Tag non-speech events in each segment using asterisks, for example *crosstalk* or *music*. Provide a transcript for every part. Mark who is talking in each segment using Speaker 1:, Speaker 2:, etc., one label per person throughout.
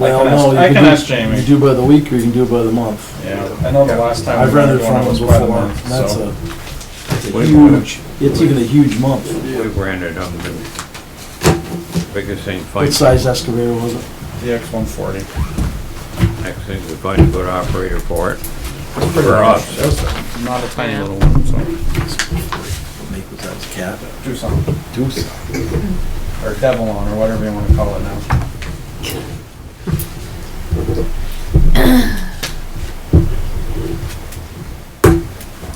Speaker 1: Well,
Speaker 2: can
Speaker 1: no,
Speaker 2: ask-
Speaker 1: you
Speaker 2: I
Speaker 1: can
Speaker 2: can
Speaker 1: do-
Speaker 2: ask Jamie.
Speaker 1: You do by the week or you can do by the month.
Speaker 2: Yeah, I know the last time.
Speaker 1: I've
Speaker 2: we
Speaker 1: rented
Speaker 2: went
Speaker 1: from
Speaker 2: one
Speaker 1: them
Speaker 2: was
Speaker 1: before,
Speaker 2: by
Speaker 1: and
Speaker 2: the month,
Speaker 1: that's
Speaker 2: so.
Speaker 1: a it's a
Speaker 3: Wait a
Speaker 1: huge, it's even a huge month.
Speaker 3: We rented them, the biggest thing,
Speaker 1: What
Speaker 3: find,
Speaker 1: size excavator was it?
Speaker 2: The X one forty.
Speaker 3: next thing, we find a good operator for it. For us,
Speaker 2: Not a tiny little one, so,
Speaker 1: Make was that, a cat?
Speaker 2: do something,
Speaker 1: Deuce.
Speaker 2: or Devilon, or whatever you wanna call it now.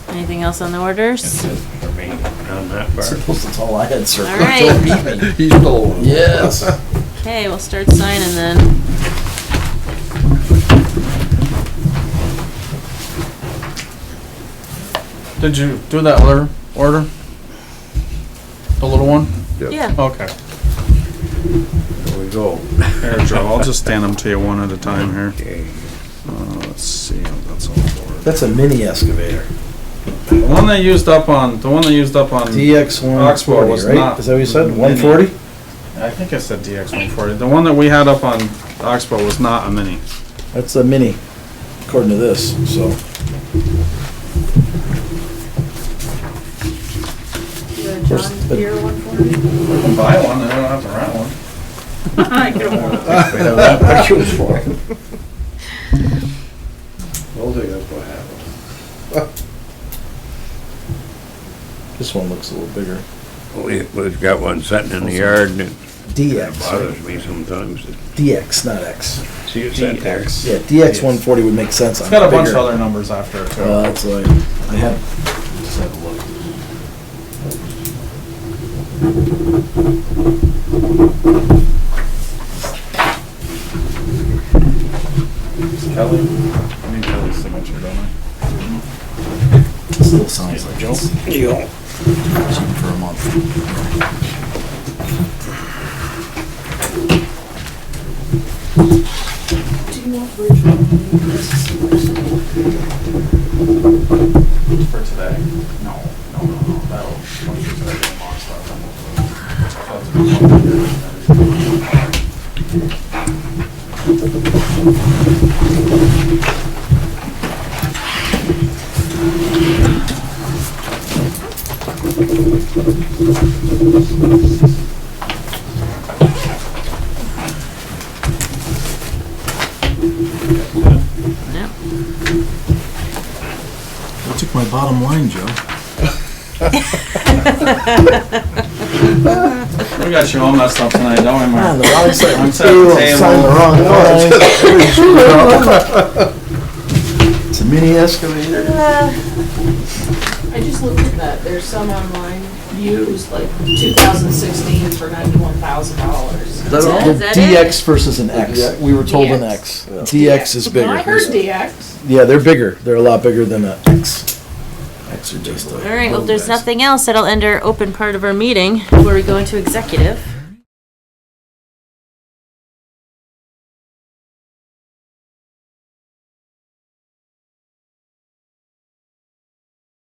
Speaker 4: Anything else on the orders?
Speaker 3: for me, on that
Speaker 1: *laughs* I
Speaker 3: part.
Speaker 1: suppose that's all I had, sir.
Speaker 4: All right.
Speaker 5: He's still on.
Speaker 1: Yes.
Speaker 4: Okay, we'll start signing then.
Speaker 2: Did you do that other order? The little one?
Speaker 4: Yeah,
Speaker 2: Okay.
Speaker 3: There we go.
Speaker 2: Here, Joe, I'll just stand them to you one at a time here.
Speaker 3: Okay.
Speaker 2: Uh, let's see, that's all for
Speaker 1: That's a mini excavator.
Speaker 2: The one they used up on, the one they used up on, I
Speaker 1: DX one
Speaker 2: Um, Oxbow
Speaker 1: forty,
Speaker 2: was
Speaker 1: right?
Speaker 2: not
Speaker 1: Is that what you said?
Speaker 2: mini.
Speaker 1: One forty?
Speaker 2: think I said DX one forty, the one that we had up on Oxbow was not a mini.
Speaker 1: That's a mini, according to this, so. John Deere
Speaker 6: one *laughs* for me?
Speaker 2: We can buy one, and I don't have to rent one.
Speaker 6: I don't want
Speaker 5: I'll think that's what happened.
Speaker 1: This one looks a little bigger.
Speaker 3: We, we've got one sitting in the yard and it
Speaker 1: DX,
Speaker 3: bothers me sometimes to
Speaker 1: DX, not X.
Speaker 3: see it sit there.
Speaker 1: Yeah, DX one forty would make sense.
Speaker 2: It's got a bunch of other numbers after it, too.
Speaker 1: Uh, that's like, I had, just had a look.
Speaker 2: Kelly? I need Kelly's signature, don't I?
Speaker 1: It still sounds like
Speaker 2: Joe?
Speaker 1: it's cheap for a month.
Speaker 6: Do you want Bridgewater?
Speaker 2: For today? No, no, no, no, that'll, once you start doing more stuff.
Speaker 4: no,
Speaker 1: You took my bottom line, Joe.
Speaker 2: We got you all messed up tonight, don't we,
Speaker 1: Ah,
Speaker 2: Mark?
Speaker 1: the wrong side.
Speaker 2: Wrong side of the
Speaker 1: Payroll signed the
Speaker 2: table. *laughs*
Speaker 1: wrong line. It's a mini excavator.
Speaker 6: I just looked at that, there's some online used, like 2016 for $91,000.
Speaker 1: The
Speaker 4: that- is
Speaker 1: the
Speaker 4: that
Speaker 1: DX versus an X. We were told an X.
Speaker 6: DX.
Speaker 1: DX is bigger.
Speaker 6: I heard DX.
Speaker 1: Yeah, they're bigger. They're a lot bigger than an X. X are just a.
Speaker 4: all right, well, if there's
Speaker 1: little guys.
Speaker 4: nothing else, that'll end our open part of our meeting, where we go into executive.